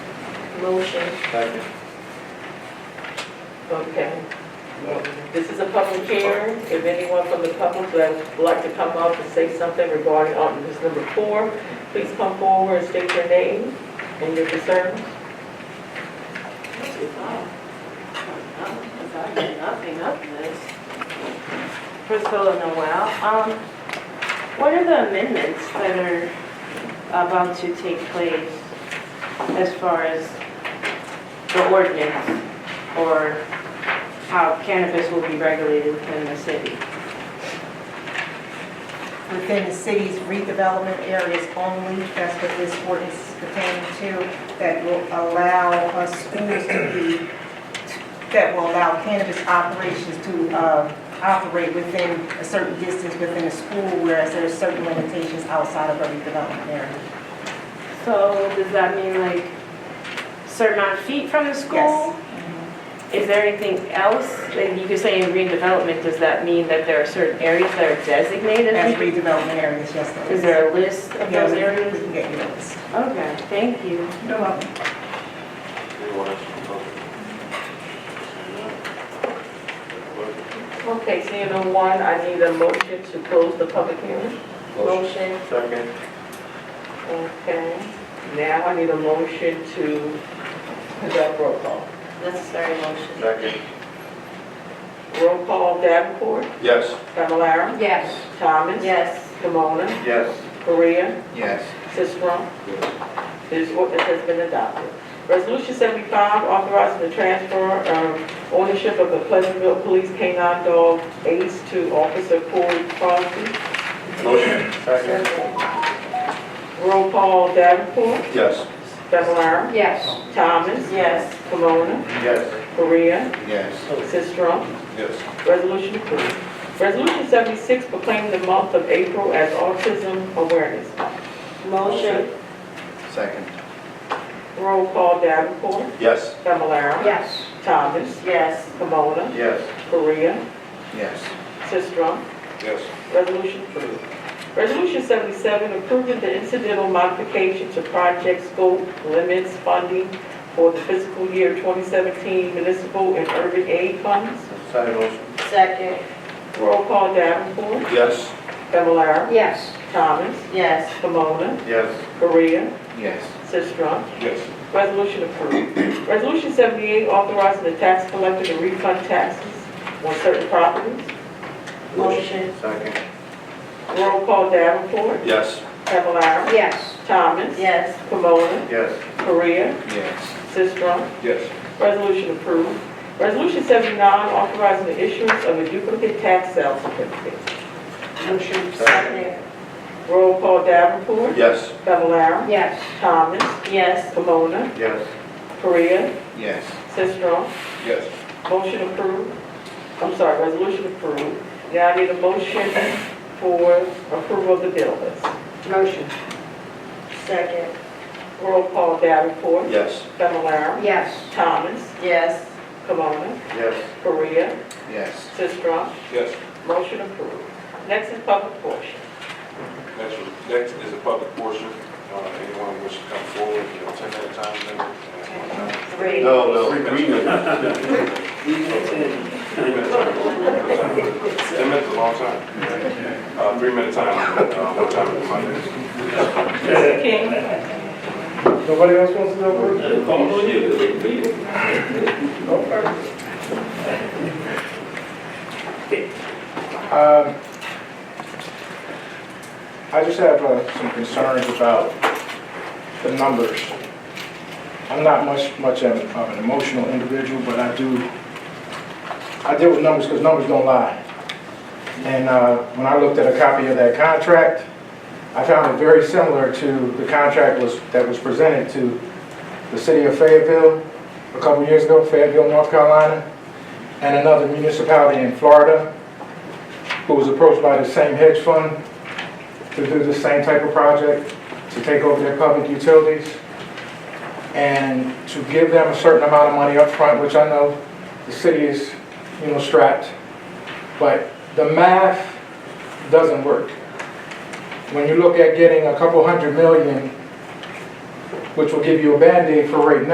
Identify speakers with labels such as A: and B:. A: Motion,
B: Second.
A: okay. This is a public hearing. If anyone from the public would like to come up and say something regarding ordinance number four, please come forward and state your name and your concerns.
C: Nothing of this. Priscilla Noel, um, what are the amendments that are about to take place as far as the ordinance or how cannabis will be regulated within the city?
D: within the city's redevelopment areas only, that's what this ordinance is pertaining to, that will allow uh, schools to be, that will allow cannabis operations to uh, operate within a certain distance within a school, whereas there are certain limitations outside of a redevelopment area.
C: So does that mean like certain amount of feet from the school?
D: Yes.
C: Is there anything else? Like you could say in redevelopment, does that mean that there are certain areas that are designated?
D: As redevelopment areas, yes, there
C: Is
D: is.
C: there a list of
D: Yeah,
C: those
D: we-
C: areas?
D: We can get you those.
C: Okay, thank you.
D: You're welcome.
B: Anyone else from the public? Clerk?
A: Okay, seeing no one, I need a motion to close the public hearing. Motion,
B: Second.
A: okay. Now I need a motion to conduct roll call.
C: Necessary motion.
B: Second.
A: Roll call, Davenport,
B: Yes.
A: Familar,
C: Yes.
A: Thomas.
C: Yes.
A: Kimona,
B: Yes.
A: Korea.
B: Yes.
A: Sisram. This ordinance has been adopted. Resolution 75, authorizing the transfer of ownership of the Pleasantville Police K-9 dog Ace to Officer Corey Crosby.
B: Motion. Second.
A: Roll call Davenport,
B: Yes.
A: Fablelaro,
C: Yes.
A: Thomas,
C: Yes.
A: Pomona,
B: Yes.
A: Korea,
B: Yes.
A: Sisram.
B: Yes.
A: Resolution approved. Resolution 76, proclaiming the month of April as Autism Awareness.
C: Motion.
B: Second.
A: Roll call Davenport,
B: Yes.
A: Fablelaro.
C: Yes.
A: Thomas,
C: Yes.
A: Pomona,
B: Yes.
A: Korea,
B: Yes.
A: Sisram.
B: Yes.
A: Resolution approved. Resolution 77, approving the incidental modification to project scope limits funding for the fiscal year 2017 municipal and urban aid funds.
B: Second motion.
C: Second.
A: Roll call Davenport,
B: Yes.
A: Fablelaro,
C: Yes.
A: Thomas,
C: Yes.
A: Pomona,
B: Yes.
A: Korea,
B: Yes.
A: Sistrum.
B: Yes.
A: Resolution approved. Resolution 78, authorizing the tax collector to refund taxes on certain properties.
C: Motion.
B: Second.
A: Roll call Davenport,
B: Yes.
A: Fablelaro,
C: Yes.
A: Thomas,
C: Yes.
A: Pomona,
B: Yes.
A: Korea,
B: Yes.
A: Sistrum.
B: Yes.
A: Resolution approved. Resolution 79, authorizing the issuance of a duplicate tax sale certificate.
C: Motion.
B: Second.
A: Roll call Davenport,
B: Yes.
A: Fablelaro,
C: Yes.
A: Thomas,
C: Yes.
A: Pomona,
B: Yes.
A: Korea,
B: Yes.
A: Sistrum.
B: Yes.
A: Motion approved. I'm sorry, resolution approved. Now I need a motion for approval of the bill list.
C: Motion. Second.
A: Roll call Davenport,
B: Yes.
A: Fablelaro,
C: Yes.
A: Thomas,
C: Yes.
A: Pomona,
B: Yes.
A: Korea,
B: Yes.
A: Sistrum.
E: Yes,
A: Motion approved. Next is public portion.
E: next, next is a public portion. Uh, Anyone wish to come forward, you know, ten minute time limit. and- uh,
C: Three.
B: No, no.
E: Three minutes. Three minutes. Ten minutes is a long time. Uh, Three minute time, limit, uh, what time is my next?
A: Mr. King?
F: Nobody else wants to go first? Um, I just have uh, some concerns about the numbers. I'm not much, much of an of an emotional individual, but I do, I deal with numbers because numbers don't lie. And uh, when I looked at a copy of that contract, I found it very similar to the contract was, that was presented to the city of Fayetteville a couple years ago, Fayetteville, North Carolina, and another municipality in Florida, who was approached by the same hedge fund to do the same type of project, to take over their public utilities, and to give them a certain amount of money up front, which I know the city is, you know, strapped, but the math doesn't work. When you look at getting a couple hundred million, which will give you a Band-Aid for right now.